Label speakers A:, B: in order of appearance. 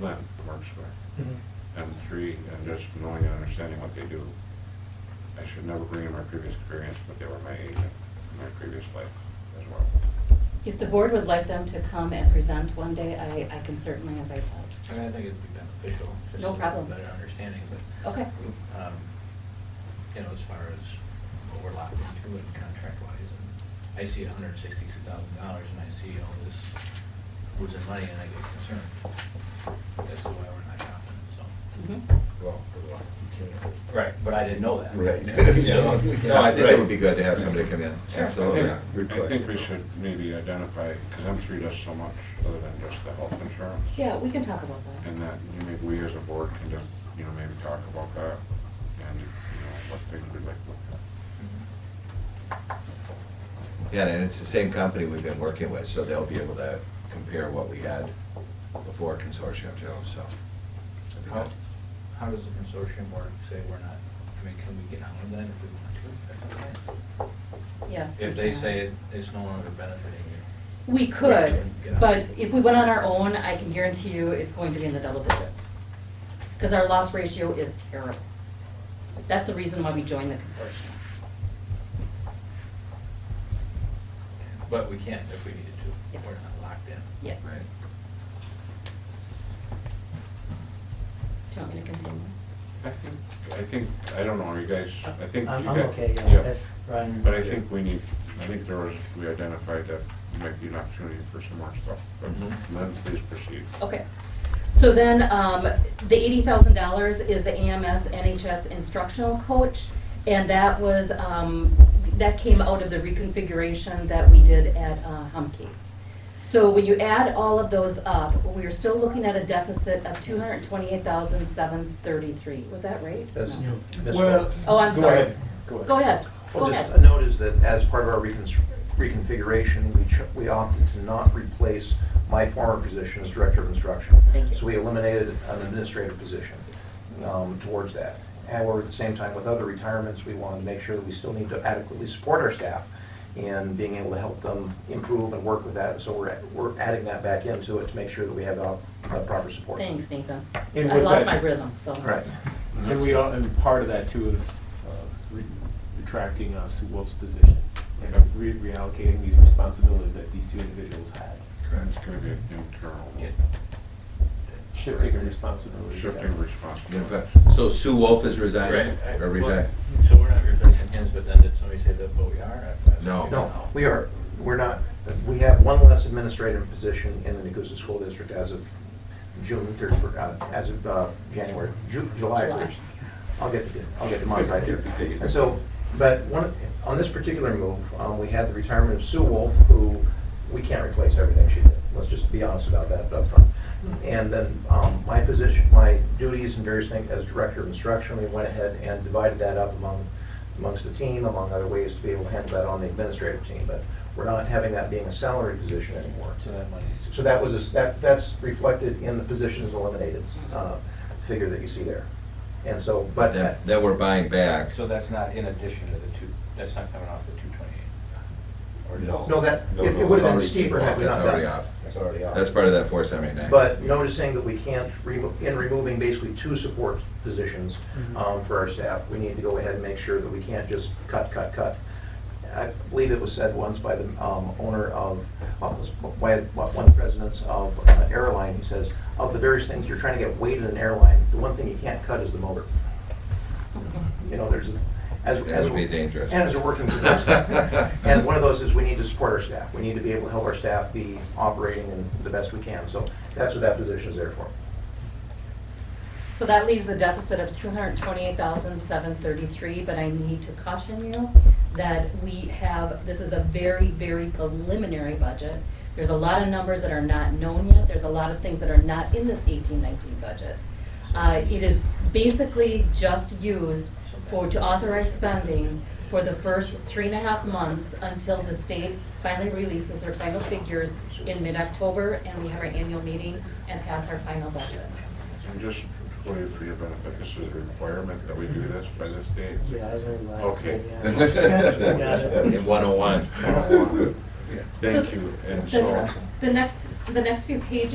A: Lynn works with, them three, and just knowing and understanding what they do. I should never bring in my previous experience, but they were my agent in my previous life as well.
B: If the board would like them to come and present one day, I, I can certainly invite
C: I
B: them.
C: mean, I think it'd be beneficial, just
B: No
C: to have a
B: problem. Oh.
C: better understanding, but.
B: Okay.
C: um, You know, as far as what we're locked into and contract-wise, and I see hundred and sixty-two thousand dollars, and I see all this losing money, and I get concerned. That's why we're not confident, so.
B: Mhm.
D: Well, well, you can't.
C: Right, but I didn't know that.
D: Right.
C: So-
E: No, I think it would be good to have somebody come in,
B: Sure.
A: I
E: absolutely.
A: think-
D: good
A: I think
D: question.
A: we should maybe identify, because M three does so much other than just the health insurance.
B: Yeah, we can talk about that.
A: And that, you know, maybe we as a board can just, you know, maybe talk about that and, you know, what things we'd like to look at.
C: Mm-hmm.
E: Yeah, and it's the same company we've been working with, so they'll be able to compare what we had before consortium too, so. that'd be
C: How,
E: good.
C: how does the consortium work, say we're not, I mean, can we get on with that if we want to? That's okay.
B: Yes. we
C: If they
B: can.
C: say it- it's no longer benefiting you.
B: We
C: Right,
B: could,
C: yeah.
B: but if we went on our own, I can guarantee you it's going to be in the double digits. Because our loss ratio is terrible. That's the reason why we joined the consortium.
C: But we can if we needed to.
B: Yes.
C: We're not locked in.
B: Yes.
E: Right.
B: Do you want me to continue?
A: I think, I think, I don't know, are you guys, I think.
F: I'm-
A: you
F: I'm
A: guys-
F: okay, yeah, if Ryan's-
A: But I think we need, I think there was, we identified that might be an opportunity for some more stuff. But
E: Mhm.
A: Lynn, please proceed.
B: Okay. So then, um, the eighty thousand dollars is the AMS NHS instructional coach, and that was, um, that came out of the reconfiguration that we did at, uh, Humke. So when you add all of those up, we are still looking at a deficit of two hundred and twenty-eight thousand, seven thirty-three. Was that right?
G: That's
B: No.
G: new. That's
F: Well,
G: correct.
B: Oh, I'm
F: Go
B: sorry.
F: ahead. Go ahead.
B: Go ahead, go
G: Well, just
B: ahead.
G: a note is that as part of our reconstr- reconfiguration, we cho- we opted to not replace my former position as Director of Instruction.
B: Thank you.
G: So we eliminated an administrative position um, towards that. However, at the same time, with other retirements, we wanted to make sure that we still need to adequately support our staff in being able to help them improve and work with that. So we're we're adding that back into it to make sure that we have the the proper support.
B: Thanks, Nathan.
F: And
B: I
F: with
B: lost
F: that-
B: my rhythm, so.
G: Right.
F: And we all, and part of that too is uh, re- retracting uh, Sue Wolf's position and re- reallocating these responsibilities that these two individuals had.
A: It's gonna be an internal
C: Yeah.
F: Shifting of responsibilities.
A: shifting
E: Yeah, but-
A: responsibility.
E: So Sue Wolf is resigning,
C: Right. I-
E: or
C: well,
E: resigning?
C: So we're not replacing hens, but then did somebody say that, but we are? I- I-
E: No.
G: No, we are, we're not, we have one less administrative position in the Nacusa School District as of June third, uh, as of, uh, January, Ju- July
B: July.
G: first. I'll get, the- I'll get the month right there. And so, but one, on this particular move, um, we had the retirement of Sue Wolf, who, we can't replace everything she did. Let's just be honest about that upfront. And then, um, my position, my duties and various things as Director of Instruction, we went ahead and divided that up among amongst the team, among other ways to be able to handle that on the administrative team, but we're not having that being a salary position anymore.
C: So that money is.
G: So that was, a s- that, that's reflected in the positions eliminated, uh, figure that you see there. And so, but that,
E: That, that we're buying back.
C: So that's not in addition to the two, that's not coming off the two twenty-eight? Or no?
G: no, that, it- it would have been steeper had we
E: That's
G: not done.
E: already
G: that.
E: off.
G: That's already off.
E: That's part of that four seventy-nine.
G: But noticing that we can't, remo- in removing basically two support positions um, for our staff, we need to go ahead and make sure that we can't just cut, cut, cut. I believe it was said once by the um, owner of, of- by one of the presidents of uh, airline, he says, of the various things you're trying to get weighted in airline, the one thing you can't cut is the motor. You know, there's, as.
E: That
G: as
E: would be dangerous.
G: And as a working professional. And one of those is we need to support our staff. We need to be able to help our staff be operating in the best we can. So that's what that position is there for.
B: So that leaves a deficit of two hundred twenty-eight thousand, seven thirty-three, but I need to caution you that we have, this is a very, very preliminary budget. There's a lot of numbers that are not known yet, there's a lot of things that are not in this eighteen, nineteen budget. Uh, it is basically just used for, to authorize spending for the first three and a half months until the state finally releases their final figures in mid-October, and we have our annual meeting and pass our final budget.
A: And just for you, for your benefit, this is a requirement that we do this by this date.
F: Yeah, I was very last.
A: Okay.
E: In one oh one.
A: Thank you, and
B: The-
A: so.
B: The next, the next few pages